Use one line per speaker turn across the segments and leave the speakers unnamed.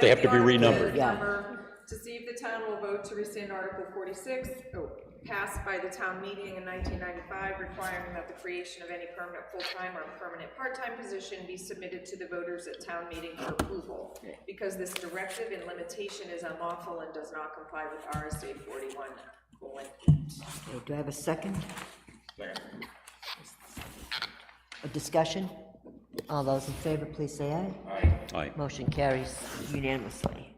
They have to be
Article
renumbered.
Yeah.
number, To see if the town will vote to rescind Article 46, oh, passed by the town meeting in 1995, requiring that the creation of any permanent full-time or permanent part-time position be submitted to the voters at town meeting for approval, because this directive and limitation is unlawful and does not comply with RSA 41.
Okay, Do I have a second? A discussion? All those in favor, please say aye.
Aye.
Motion carries unanimously.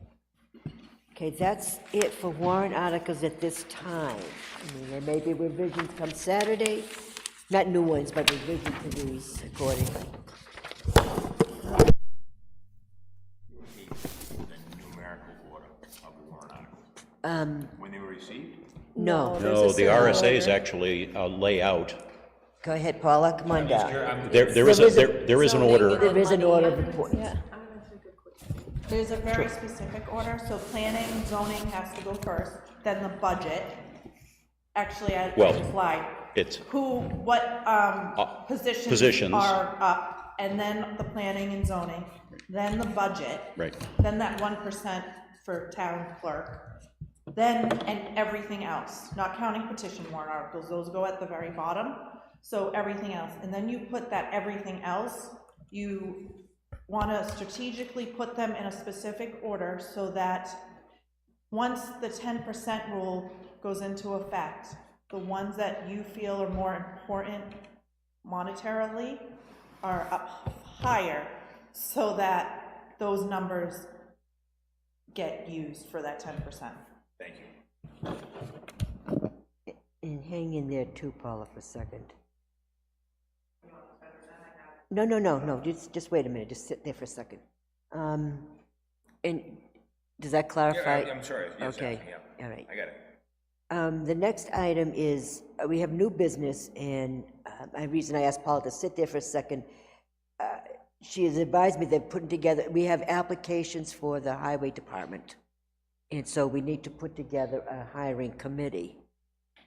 Okay, that's it for warrant articles at this time. I mean, there may be revisions come Saturday, not new ones, but revisions to these accordingly.
numerical order of the warrant articles. When they were received?
Um, No,
No, the RSAs actually uh, lay out,
go ahead, Paula, come on down.
there, there is, a-
There is a-
there, there is an
So maybe
order.
the
There is an
money-
order of importance.
Yeah. There's a very specific order, so planning, zoning has to go first, then the budget. Actually, I
Well,
I just lied.
it's- Uh,
Who, what, um,
positions.
positions are up, and then the planning and zoning, then the budget.
Right.
Then that one percent for town clerk, then, and everything else, not counting petition warrant articles, those go at the very bottom. So everything else, and then you put that everything else, you wanna strategically put them in a specific order so that once the ten percent rule goes into effect, the ones that you feel are more important monetarily are up higher so that those numbers get used for that ten percent.
And hang in there too, Paula, for a second. No, no, no, no, just, just wait a minute, just sit there for a second. Um, And, does that clarify?
I'm sorry, yes,
Okay,
yeah,
all right.
I got it.
Um, The next item is, uh, we have new business, and uh, my reason I asked Paula to sit there for a second, uh, she has advised me that putting together, we have applications for the highway department. And so we need to put together a hiring committee.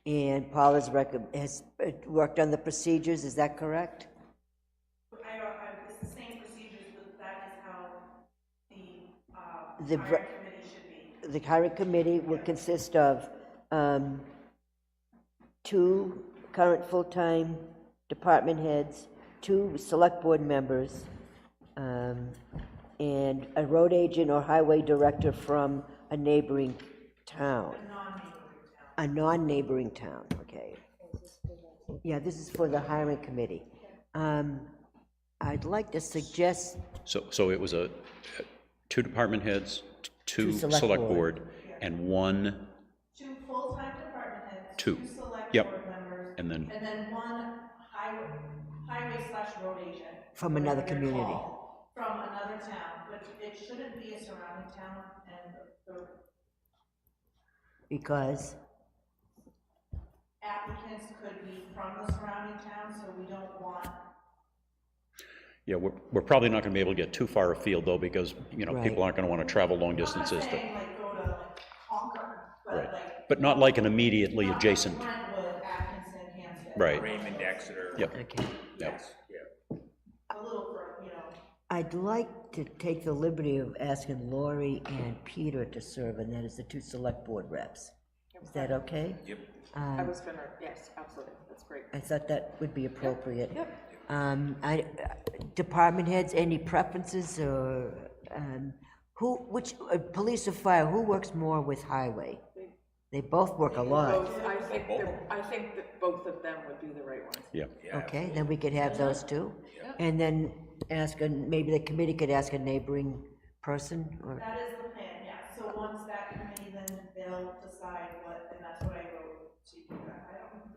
And Paula's rec, has uh, worked on the procedures, is that correct?
I don't, I, it's the same procedures, but that is how the, uh,
The br-
committee should be.
the hiring committee will consist of um, two current full-time department heads, two select board members, um, and a road agent or highway director from a neighboring town. A non-neighboring town, okay. Yeah, this is for the hiring committee. Um, I'd like to suggest
So, so it was a, two department heads, two
select
select
board.
board, and one,
Two full-time department heads.
Two.
select
Yep.
board members.
And then-
And then one highway, highway slash road agent.
From another
whatever they're
community.
called, From another town, but it shouldn't be a surrounding town and the
because,
applicants could be from the surrounding town, so we don't want.
yeah, we're, we're probably not gonna be able to get too far afield though, because, you know,
Right.
people aren't gonna wanna travel long
I'm not
distances to,
saying like go to like Concord,
right.
but like.
But not like an immediately adjacent,
Brentwood, Atkinson, Hampstead.
right,
Raymond, Exeter.
Yep.
okay.
yep.
A little, fur- you know.
I'd like to take the liberty of asking Lori and Peter to serve, and that is the two select board reps. Is that okay? Um,
Yep.
I was gonna, yes, absolutely, that's great.
I thought that would be appropriate. Um, I, department heads, any preferences or, um, who, which, uh, police or fire, who works more with highway? They both work a lot.
Both, I think, the- I think that both of them would be the right ones.
yeah.
Okay, then we could have those two. And then ask, a- maybe the committee could ask a neighboring person or,
That is the plan, yeah, so once that committee, then they'll decide what, and that's what I wrote to you, I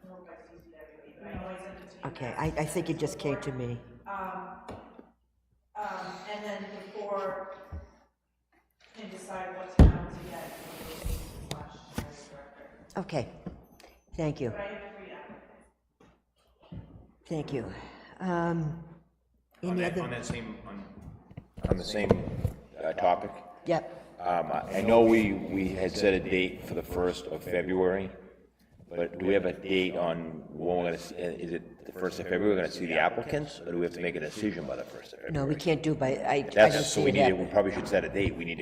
don't know if I see it everybody, but I know I sent it to you.
okay, I, I think it just came to me.
Um, and then before, and decide what town to get, slash, director.
Okay, thank you.
I have three applicants.
Thank you. Um,
On
Any
that,
other,
on that same, on. On the same uh, topic,
yep,
um, I I know we, we had set a date for the first of February, but do we have a date on when we're gonna, s- uh, is it the first of February, we're gonna see the applicants, or do we have to make a decision by the first of February?
no, we can't do by, I, I don't
That's, so
see
we
it
need, to-
happening.
we probably should set a date, we need to